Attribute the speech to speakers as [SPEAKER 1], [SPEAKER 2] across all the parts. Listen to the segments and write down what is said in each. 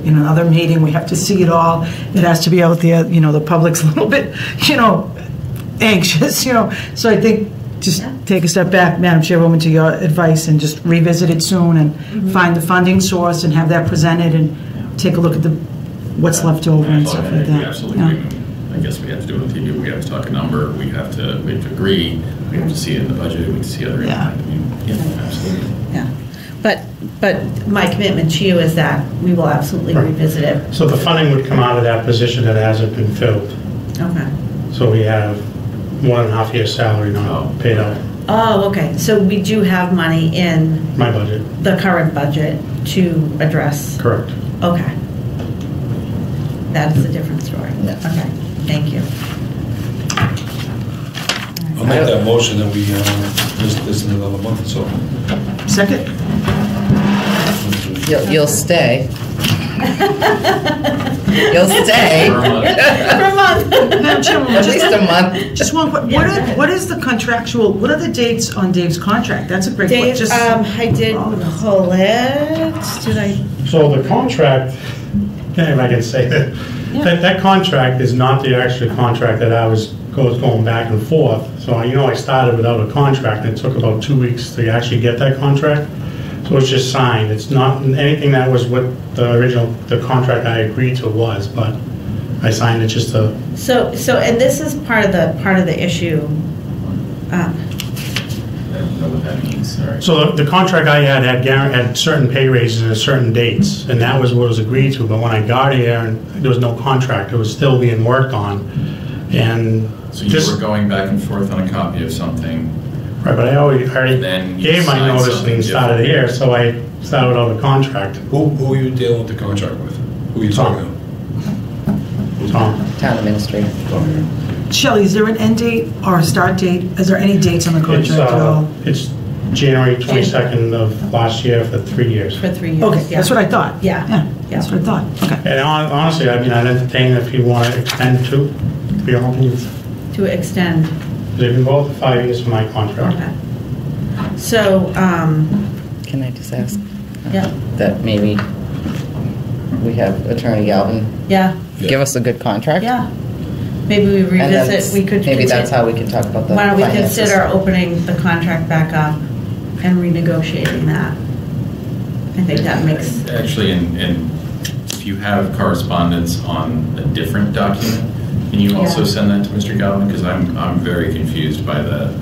[SPEAKER 1] in another meeting, we have to see it all, it has to be out there, you know, the public's a little bit, you know, anxious, you know, so I think just take a step back, Madam Chairwoman, to your advice, and just revisit it soon,
[SPEAKER 2] Mm-hmm.
[SPEAKER 1] and find the funding source, and have that presented, and take a look at the, what's left over and stuff like that.
[SPEAKER 3] We absolutely
[SPEAKER 1] Yeah.
[SPEAKER 3] agree. I guess we have to do it with you, we have to talk a number, we have to, we have to agree, we have to see it in the budget, we have to see other.
[SPEAKER 1] Yeah.
[SPEAKER 3] I mean, Yeah, absolutely.
[SPEAKER 2] Yeah, but, but my commitment to you is that we will absolutely
[SPEAKER 4] Right.
[SPEAKER 2] revisit it.
[SPEAKER 4] So the funding would come out of that position that hasn't been filled.
[SPEAKER 2] Okay.
[SPEAKER 4] So we have one and a half year's salary
[SPEAKER 3] Oh.
[SPEAKER 4] not paid out,
[SPEAKER 2] Oh, okay, so we do have money in
[SPEAKER 4] my budget,
[SPEAKER 2] the current budget to address,
[SPEAKER 4] correct.
[SPEAKER 2] okay. That's a different story.
[SPEAKER 5] Yeah.
[SPEAKER 2] Okay, thank you.
[SPEAKER 6] I'll make that motion that we, uh, this, this in another month, so.
[SPEAKER 1] Second?
[SPEAKER 5] You'll, you'll stay. You'll stay.
[SPEAKER 3] For a month.
[SPEAKER 2] For a month.
[SPEAKER 1] Madam Chairwoman,
[SPEAKER 5] At
[SPEAKER 1] just-
[SPEAKER 5] least a month.
[SPEAKER 1] Just one, que- what are, what is the contractual, what are the dates on Dave's contract? That's a great question.
[SPEAKER 2] Dave,
[SPEAKER 1] Just-
[SPEAKER 2] um, I did pull it, did I?
[SPEAKER 4] So the contract, if I can say that, that, that contract is not the actual contract that I was, goes going back and forth. So, you know, I started without a contract, and it took about two weeks to actually get that contract. So it's just signed, it's not, anything that was what the original, the contract I agreed to was, but I signed it just to
[SPEAKER 2] So, so, and this is part of the, part of the issue. Um,
[SPEAKER 3] I don't know what that means, sorry.
[SPEAKER 4] So the the contract I had had, guar- had certain pay raises and certain dates, and that was what was agreed to, but when I got here, and there was no contract, it was still being worked on, and
[SPEAKER 3] So
[SPEAKER 4] this,
[SPEAKER 3] you were
[SPEAKER 4] right,
[SPEAKER 3] going back and forth on a copy of something,
[SPEAKER 4] but I already, I already
[SPEAKER 3] Then you
[SPEAKER 4] gave my
[SPEAKER 3] signed
[SPEAKER 4] notice
[SPEAKER 3] something
[SPEAKER 4] and started
[SPEAKER 3] different.
[SPEAKER 4] here, so I started without a contract,
[SPEAKER 6] Who, who are you dealing with the contract with? Who are you talking
[SPEAKER 4] Tom.
[SPEAKER 5] Town administrator.
[SPEAKER 6] to?
[SPEAKER 1] Shelley, is there an end date or a start date? Is there any dates on the
[SPEAKER 4] It's,
[SPEAKER 1] contract at
[SPEAKER 4] uh,
[SPEAKER 1] all?
[SPEAKER 4] It's January 22nd of last year for three years.
[SPEAKER 2] For three years.
[SPEAKER 1] Okay, that's
[SPEAKER 2] yeah.
[SPEAKER 1] what I thought.
[SPEAKER 2] Yeah.
[SPEAKER 1] Yeah, that's what I thought, okay.
[SPEAKER 4] And hon- honestly, I mean, I'd entertain if you want to extend to, to be honest,
[SPEAKER 2] To extend.
[SPEAKER 4] they've been both five years for my contract.
[SPEAKER 2] Okay. So, um,
[SPEAKER 5] Can I just ask? uh,
[SPEAKER 2] Yeah.
[SPEAKER 5] That maybe we have Attorney Galvin
[SPEAKER 2] yeah,
[SPEAKER 6] Yeah.
[SPEAKER 5] give us a good contract?
[SPEAKER 2] yeah. Maybe we
[SPEAKER 5] And that's-
[SPEAKER 2] revisit, we could.
[SPEAKER 5] Maybe that's
[SPEAKER 2] consi-
[SPEAKER 5] how we can talk about the
[SPEAKER 2] Why don't we
[SPEAKER 5] finances.
[SPEAKER 2] consider opening the contract back up and renegotiating that? I think that makes,
[SPEAKER 3] Actually, and, and if you have correspondence on a different document, can you also
[SPEAKER 2] Yeah.
[SPEAKER 3] send that to Mr. Galvin? Because I'm, I'm very confused by the,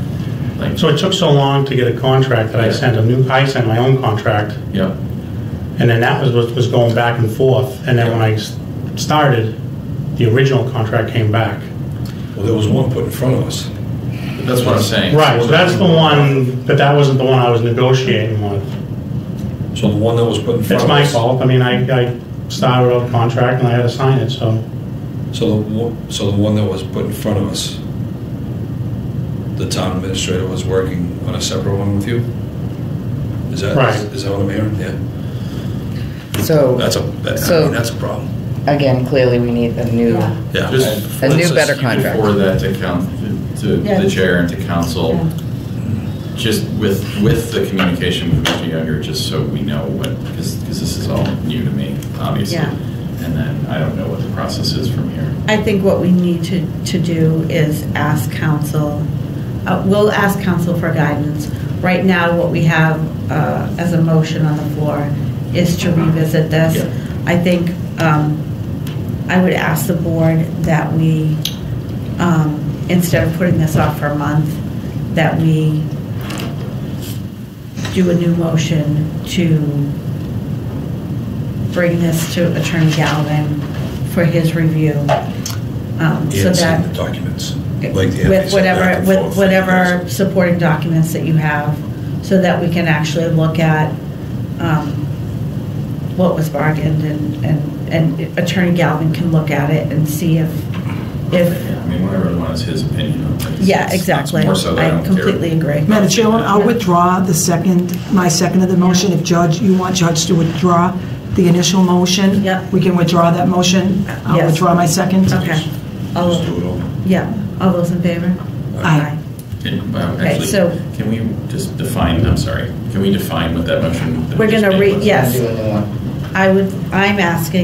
[SPEAKER 3] like,
[SPEAKER 4] So it took so long to get a contract that I
[SPEAKER 3] Yeah.
[SPEAKER 4] sent a new, I sent my own contract,
[SPEAKER 3] yep,
[SPEAKER 4] and then that was what was going back and forth. And then when I s- started, the original contract came back.
[SPEAKER 6] Well, there was one put in front of us.
[SPEAKER 3] that's what I'm saying.
[SPEAKER 4] Right, so that's the one, but that wasn't the one I was negotiating with.
[SPEAKER 6] So the one that was put in
[SPEAKER 4] It's
[SPEAKER 6] front of
[SPEAKER 4] my
[SPEAKER 6] us.
[SPEAKER 4] fault, I mean, I, I started out a contract and I had to sign it, so.
[SPEAKER 6] So the, one- so the one that was put in front of us, the town administrator was working on a separate one with you? Is that,
[SPEAKER 4] Right.
[SPEAKER 6] is that what I'm hearing? Yeah.
[SPEAKER 5] So,
[SPEAKER 6] That's a, that- I
[SPEAKER 5] So-
[SPEAKER 6] mean, that's a problem.
[SPEAKER 5] again, clearly we need a new,
[SPEAKER 2] Yeah.
[SPEAKER 6] Yeah.
[SPEAKER 3] Just-
[SPEAKER 5] A new,
[SPEAKER 3] let's just-
[SPEAKER 5] better
[SPEAKER 3] you can
[SPEAKER 5] contract.
[SPEAKER 3] Forward that to coun to the
[SPEAKER 2] Yes.
[SPEAKER 3] chair and to council, just with, with the communication with Mr. Younger, just so we know what, because, because this is all new to me, obviously.
[SPEAKER 2] Yeah.
[SPEAKER 3] And then I don't know what the process is from here.
[SPEAKER 2] I think what we need to, to do is ask council, uh, we'll ask council for guidance. Right now, what we have, uh, as a motion on the floor is to revisit this.
[SPEAKER 3] Yeah.
[SPEAKER 2] I think, um, I would ask the board that we, um, instead of putting this off for a month, that we do a new motion to bring this to Attorney Galvin for his review. um, So
[SPEAKER 6] And send the
[SPEAKER 2] that,
[SPEAKER 6] documents. like the
[SPEAKER 2] with
[SPEAKER 6] ethics back
[SPEAKER 2] whatever,
[SPEAKER 6] and
[SPEAKER 2] with
[SPEAKER 6] forth.
[SPEAKER 2] whatever supporting documents that you have, so that we can actually look at um, what was bargained and, and and Attorney Galvin can look at it and see if, if,
[SPEAKER 3] I mean, whatever one is his opinion on things. It's-
[SPEAKER 2] yeah,
[SPEAKER 3] it's
[SPEAKER 2] exactly.
[SPEAKER 3] More so that I
[SPEAKER 2] I
[SPEAKER 3] don't care.
[SPEAKER 2] completely agree.
[SPEAKER 1] Madam Chairwoman, I'll withdraw the second, my second of the motion. If Judge, you want Judge to withdraw the initial motion?
[SPEAKER 2] Yep.
[SPEAKER 1] We can withdraw that motion. I'll
[SPEAKER 2] Yes.
[SPEAKER 1] withdraw my second.
[SPEAKER 2] Okay.
[SPEAKER 6] Just
[SPEAKER 2] All,
[SPEAKER 6] do it all.
[SPEAKER 2] yeah, all those in favor?
[SPEAKER 1] Aye.
[SPEAKER 3] Can- well,
[SPEAKER 2] Okay,
[SPEAKER 3] Actually,
[SPEAKER 2] so-
[SPEAKER 3] can we just define, I'm sorry, can we define what that motion? that
[SPEAKER 2] We're
[SPEAKER 3] we just
[SPEAKER 2] gonna
[SPEAKER 3] made
[SPEAKER 2] re-
[SPEAKER 3] was?
[SPEAKER 2] yes.
[SPEAKER 5] do a new one.
[SPEAKER 2] I would, I'm asking